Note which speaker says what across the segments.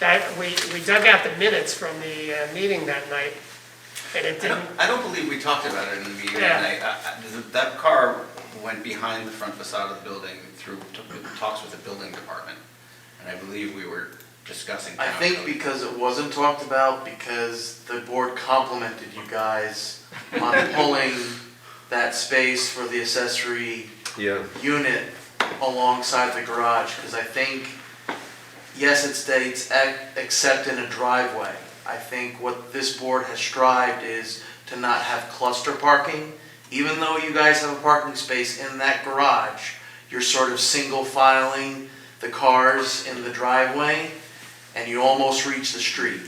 Speaker 1: That, we, we dug out the minutes from the uh, meeting that night, and it
Speaker 2: I
Speaker 1: didn't,
Speaker 2: don't, I don't believe we talked about it in the meeting
Speaker 1: Yeah.
Speaker 2: that night. I- I- th- That car went behind the front facade of the building through t- talks with the building department. And I believe we were discussing.
Speaker 3: I
Speaker 2: town
Speaker 3: think
Speaker 2: code.
Speaker 3: because it wasn't talked about, because the board complimented you guys on pulling that space for the accessory
Speaker 4: Yeah,
Speaker 3: unit alongside the garage, because I think, yes, it states, "Ac- except in a driveway. I think what this board has strived is to not have cluster parking. Even though you guys have a parking space in that garage, you're sort of single filing the cars in the driveway, and you almost reach the street.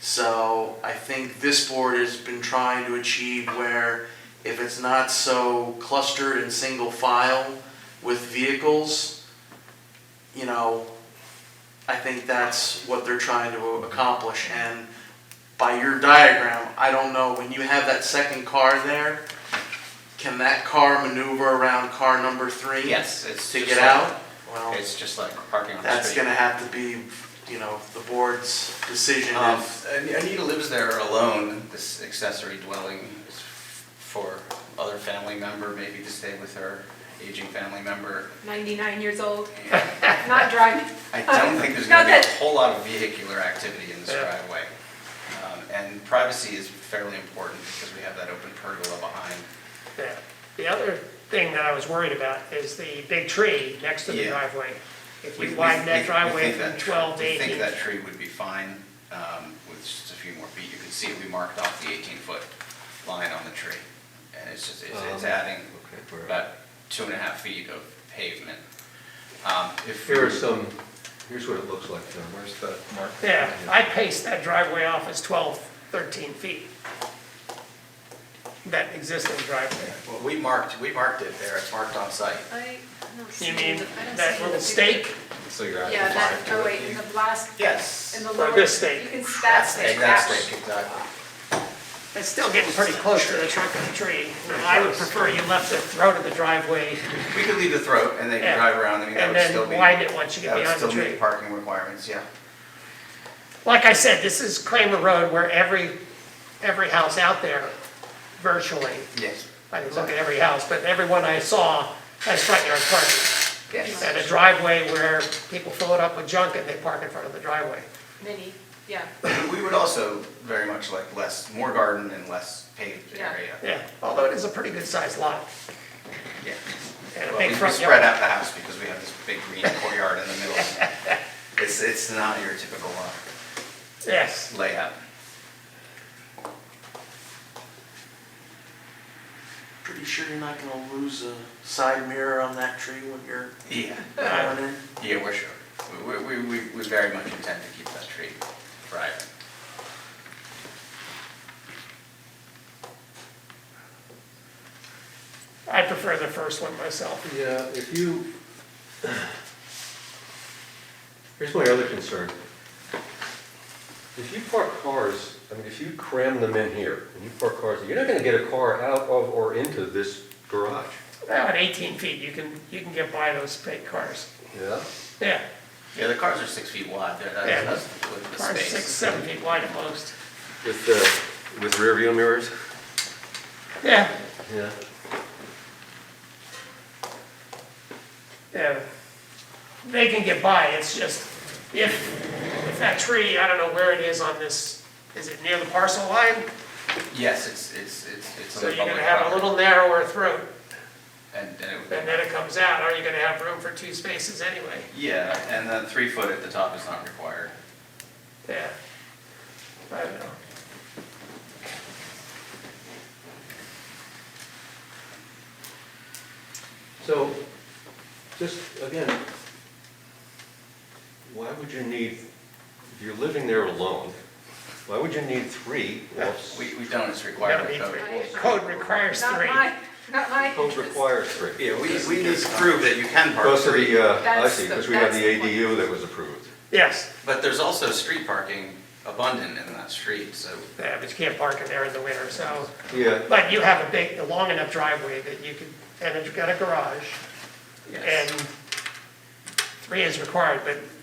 Speaker 3: So I think this board has been trying to achieve where if it's not so clustered and single file with vehicles, you know, I think that's what they're trying to accomplish. And by your diagram, I don't know, when you have that second car there, can that car maneuver around car number three?
Speaker 2: Yes, it's.
Speaker 3: To
Speaker 2: just
Speaker 3: get
Speaker 2: like-
Speaker 3: out? Well,
Speaker 2: It's just like parking on the
Speaker 3: that's
Speaker 2: street.
Speaker 3: gonna have to be, you know, the board's decision
Speaker 2: Um,
Speaker 3: if
Speaker 2: An- Anita lives there alone, this accessory dwelling is for other family member, maybe to stay with her aging family member.
Speaker 5: 99 years old,
Speaker 2: And
Speaker 5: not driving.
Speaker 2: I don't think there's gonna be
Speaker 5: Not
Speaker 2: a
Speaker 5: that-
Speaker 2: whole lot of vehicular activity in this
Speaker 1: Yeah.
Speaker 2: driveway. Um, And privacy is fairly important because we have that open pergola behind.
Speaker 1: yeah. The other thing that I was worried about is the big tree next to the
Speaker 2: Yeah.
Speaker 1: driveway. If
Speaker 2: We-
Speaker 1: you
Speaker 2: we-
Speaker 1: widen
Speaker 2: we- we
Speaker 1: that driveway
Speaker 2: think
Speaker 1: from
Speaker 2: that tr-
Speaker 1: 12 to
Speaker 2: We think
Speaker 1: 18,
Speaker 2: that tree would be fine um, with just a few more feet. You can see we marked off the 18-foot line on the tree. And it's just, it's it's
Speaker 4: Um,
Speaker 2: adding
Speaker 4: okay, where-
Speaker 2: about two and a half feet of pavement. Um, If
Speaker 4: here are some, here's what it looks like, John. Where's the mark?
Speaker 1: yeah, I paced that driveway off as 12, 13 feet. That existing driveway.
Speaker 2: Well, we marked, we marked it there. It's marked on site.
Speaker 5: I don't see
Speaker 1: You mean
Speaker 5: the- I don't
Speaker 1: that
Speaker 5: see
Speaker 1: little
Speaker 5: the
Speaker 1: stake?
Speaker 5: picture.
Speaker 4: So you're out
Speaker 5: Yeah, that, oh wait, in the last,
Speaker 2: Yes.
Speaker 5: in the
Speaker 1: Or
Speaker 5: lower.
Speaker 1: this stake.
Speaker 5: You can, that stake, that
Speaker 2: Exactly,
Speaker 5: one.
Speaker 2: exactly.
Speaker 1: It's still getting pretty close to the trunk of the tree. And I would prefer you left the throat of the driveway
Speaker 2: We could leave the throat and they
Speaker 1: Yeah.
Speaker 2: could drive around. I mean, that
Speaker 1: and
Speaker 2: would still be.
Speaker 1: then widen it once you get
Speaker 2: That would
Speaker 1: behind the
Speaker 2: still
Speaker 1: tree.
Speaker 2: meet parking requirements, yeah.
Speaker 1: Like I said, this is Kramer Road where every, every house out there virtually,
Speaker 2: Yes.
Speaker 1: I didn't look at every house, but everyone I saw has front yard parking.
Speaker 2: Yes.
Speaker 1: And a driveway where people fill it up with junk and they park in front of the driveway.
Speaker 5: mini, yeah.
Speaker 2: We would also very much like less, more garden and less paved
Speaker 5: Yeah.
Speaker 2: area.
Speaker 1: Yeah, although it is a pretty good sized lot
Speaker 2: Yeah.
Speaker 1: and a
Speaker 2: Well,
Speaker 1: big
Speaker 2: we we
Speaker 1: front
Speaker 2: spread
Speaker 1: yard.
Speaker 2: out the house because we have this big green courtyard in the middle. It's, it's not your typical uh,
Speaker 1: Yes,
Speaker 2: layout.
Speaker 3: Pretty sure you're not gonna lose a side mirror on that tree when you're
Speaker 2: Yeah.
Speaker 3: driving in?
Speaker 2: Yeah, we're sure. We, we, we, we very much intend to keep that tree thriving.
Speaker 1: I prefer the first one myself.
Speaker 4: Yeah, if you, here's my other concern. If you park cars, I mean, if you cram them in here and you park cars, you're not gonna get a car out of or into this garage.
Speaker 1: Now at 18 feet, you can, you can get by those big cars.
Speaker 4: Yeah.
Speaker 1: Yeah,
Speaker 2: Yeah, the cars are six feet wide. They're,
Speaker 1: Yeah.
Speaker 2: that's, that's with the
Speaker 1: cars
Speaker 2: space.
Speaker 1: six, seven feet wide at most.
Speaker 4: With the, with rear view mirrors?
Speaker 1: Yeah,
Speaker 4: Yeah.
Speaker 1: Yeah, Uh, they can get by, it's just, if, if that tree, I don't know where it is on this, is it near the parcel line?
Speaker 2: Yes, it's, it's, it's, it's on
Speaker 1: So
Speaker 2: the
Speaker 1: you're gonna
Speaker 2: public
Speaker 1: have a
Speaker 2: property.
Speaker 1: little narrower throat,
Speaker 2: And, and it would.
Speaker 1: and then it comes out, are you gonna have room for two spaces anyway?
Speaker 2: Yeah, and the three foot at the top is not required.
Speaker 1: Yeah, I don't know.
Speaker 4: So, just again, why would you need, if you're living there alone, why would you need three? Well,
Speaker 2: We, we don't, it's
Speaker 1: You
Speaker 2: required.
Speaker 1: don't
Speaker 2: by
Speaker 1: need
Speaker 2: code.
Speaker 1: three. Code requires
Speaker 5: Not
Speaker 1: three.
Speaker 5: my, not my
Speaker 4: Code
Speaker 5: interest.
Speaker 4: requires three.
Speaker 2: Yeah, we, we need to prove that you can park
Speaker 4: Because of
Speaker 2: three,
Speaker 4: the, uh, I
Speaker 5: That's
Speaker 4: see,
Speaker 5: the-
Speaker 4: because we have
Speaker 5: that's
Speaker 4: the
Speaker 5: the point.
Speaker 4: ADU that was approved.
Speaker 1: Yes,
Speaker 2: but there's also street parking abundant in that street, so.
Speaker 1: yeah, but you can't park in there in the winter, so,
Speaker 4: Yeah,
Speaker 1: but you have a big, a long enough driveway that you could, and it's got a garage,
Speaker 2: yes.
Speaker 1: and three is required, but